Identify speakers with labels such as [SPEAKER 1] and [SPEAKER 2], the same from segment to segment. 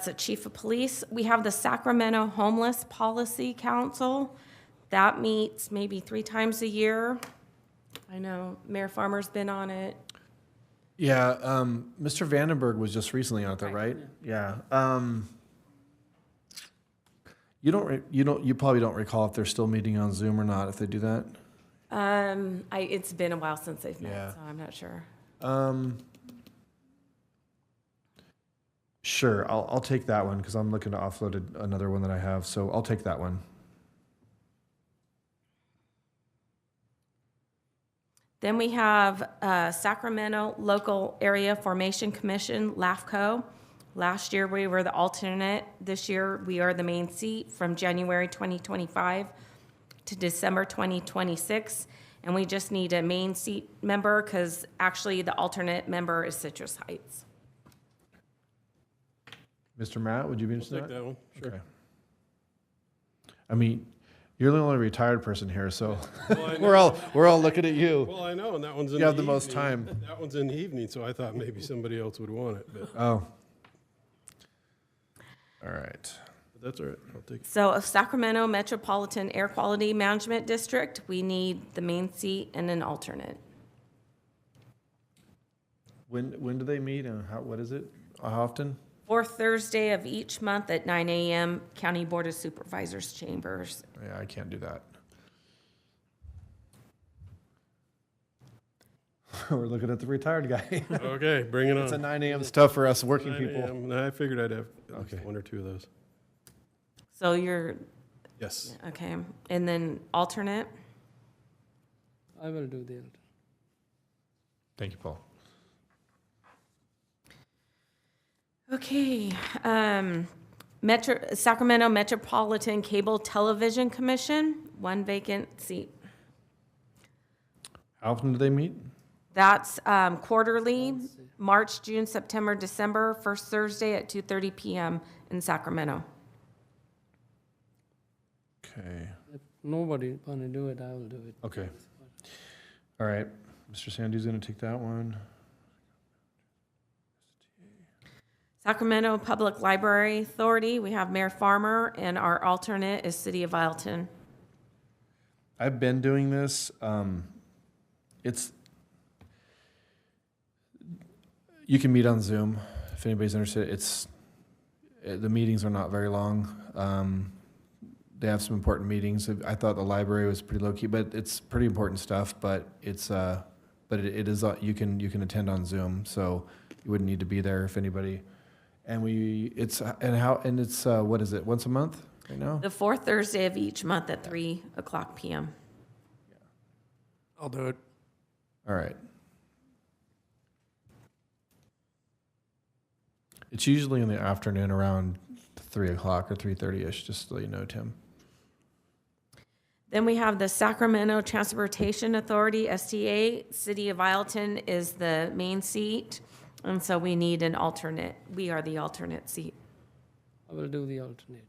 [SPEAKER 1] That's the chief of police. We have the Sacramento Homeless Policy Council. That meets maybe three times a year. I know Mayor Farmer's been on it.
[SPEAKER 2] Yeah, um, Mr. Vandenberg was just recently on it, though, right? Yeah. Um, you don't, re- you don't, you probably don't recall if they're still meeting on Zoom or not, if they do that.
[SPEAKER 1] Um, I, it's been a while since they've
[SPEAKER 2] Yeah.
[SPEAKER 1] met, so I'm not sure.
[SPEAKER 2] Um, sure, I'll, I'll take that one because I'm looking to offload a- another one that I have, so I'll take that one.
[SPEAKER 1] Then we have uh, Sacramento Local Area Formation Commission, LAFCO. Last year, we were the alternate. This year, we are the main seat from January 2025 to December 2026. And we just need a main seat member because actually the alternate member is Citrus Heights.
[SPEAKER 2] Mr. Matt, would you be interested in
[SPEAKER 3] Take
[SPEAKER 2] that?
[SPEAKER 3] that one, sure.
[SPEAKER 2] Okay. I mean, you're the only retired person here, so
[SPEAKER 3] Well, I know-
[SPEAKER 2] we're all, we're all looking at you.
[SPEAKER 3] Well, I know, and that one's in
[SPEAKER 2] You
[SPEAKER 3] the
[SPEAKER 2] have the most
[SPEAKER 3] evening.
[SPEAKER 2] time.
[SPEAKER 3] That one's in the evening, so I thought maybe somebody else would want it, but
[SPEAKER 2] Oh. All right.
[SPEAKER 3] but that's all right, I'll take it.
[SPEAKER 1] So of Sacramento Metropolitan Air Quality Management District, we need the main seat and an alternate.
[SPEAKER 2] When, when do they meet and how, what is it? How often?
[SPEAKER 1] Fourth Thursday of each month at 9 a.m., County Board of Supervisors Chambers.
[SPEAKER 2] Yeah, I can't do that. We're looking at the retired guy.
[SPEAKER 3] Okay, bring it
[SPEAKER 2] It's a
[SPEAKER 3] on.
[SPEAKER 2] nine AM stuff for us working
[SPEAKER 3] 9
[SPEAKER 2] people.
[SPEAKER 3] a.m. I figured I'd have at least
[SPEAKER 2] Okay.
[SPEAKER 3] one or two of those.
[SPEAKER 1] So you're,
[SPEAKER 3] Yes,
[SPEAKER 1] okay, and then alternate?
[SPEAKER 4] I will do the alternate.
[SPEAKER 2] Thank you, Paul.
[SPEAKER 1] Okay, um, Metro, Sacramento Metropolitan Cable Television Commission, one vacant seat.
[SPEAKER 2] How often do they meet?
[SPEAKER 1] That's, um, quarterly, March, June, September, December, first Thursday at 2:30 PM in Sacramento.
[SPEAKER 2] Okay,
[SPEAKER 4] If nobody wanna do it, I will do it.
[SPEAKER 2] okay. All right, Mr. Sandy's gonna take that one.
[SPEAKER 1] Sacramento Public Library Authority, we have Mayor Farmer, and our alternate is City of Ileton.
[SPEAKER 2] I've been doing this. Um, it's you can meet on Zoom if anybody's interested. It's eh, the meetings are not very long. Um, they have some important meetings. I thought the library was pretty low key, but it's pretty important stuff. But it's uh, but it, it is uh, you can you can attend on Zoom, so you wouldn't need to be there if anybody. And we it's uh, and how and it's uh, what is it once a month right now?
[SPEAKER 1] The fourth Thursday of each month at 3 o'clock PM.
[SPEAKER 4] I'll do it.
[SPEAKER 2] All right. It's usually in the afternoon around three o'clock or three thirty ish, just so you know, Tim.
[SPEAKER 1] Then we have the Sacramento Transportation Authority, STA. City of Ileton is the main seat, and so we need an alternate. We are the alternate seat.
[SPEAKER 4] I will do the alternate.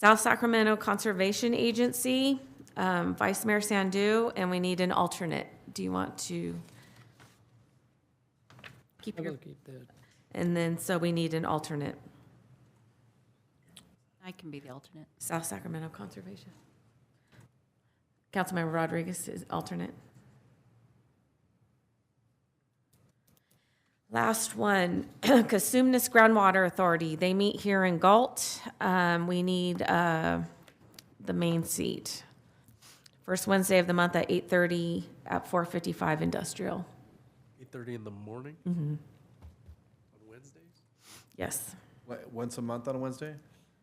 [SPEAKER 1] South Sacramento Conservation Agency, um, Vice Mayor Sandu, and we need an alternate. Do you want to? Keep
[SPEAKER 4] I
[SPEAKER 1] your,
[SPEAKER 4] will keep that.
[SPEAKER 1] and then, so we need an alternate,
[SPEAKER 5] I can be the alternate.
[SPEAKER 1] South Sacramento Conservation. Councilmember Rodriguez is alternate. Last one, Casumnes Groundwater Authority. They meet here in Galt. Um, we need, uh, the main seat. First Wednesday of the month at eight thirty at four fifty-five industrial. Mm-hmm.
[SPEAKER 6] Eight thirty in the morning on Wednesdays.
[SPEAKER 1] Yes,
[SPEAKER 2] Once a month on a Wednesday,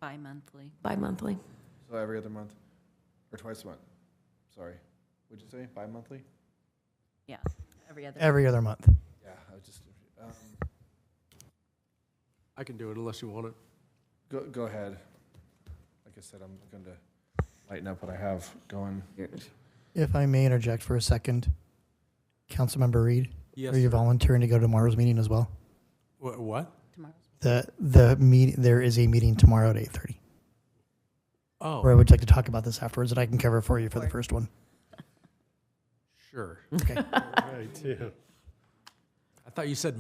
[SPEAKER 5] Bi-monthly.
[SPEAKER 1] bi-monthly.
[SPEAKER 2] so every other month, or twice a month. Sorry, would you say bi-monthly?
[SPEAKER 5] Yeah, every other.
[SPEAKER 7] Every other month.
[SPEAKER 2] Yeah, I was just. um,
[SPEAKER 6] I can do it unless you want it.
[SPEAKER 2] go go ahead. Like I said, I'm going to lighten up what I have going.
[SPEAKER 7] If I may interject for a second, Councilmember Reed,
[SPEAKER 6] Yes.
[SPEAKER 7] are you volunteering to go to tomorrow's meeting as well?
[SPEAKER 6] what?
[SPEAKER 5] Tomorrow's
[SPEAKER 7] The, the meet, there is a meeting tomorrow at eight thirty, where I
[SPEAKER 6] Oh,
[SPEAKER 7] would like to talk about this afterwards, and I can cover for you for the first one.
[SPEAKER 6] sure.
[SPEAKER 7] Okay.
[SPEAKER 3] all right, yeah.
[SPEAKER 6] I thought you said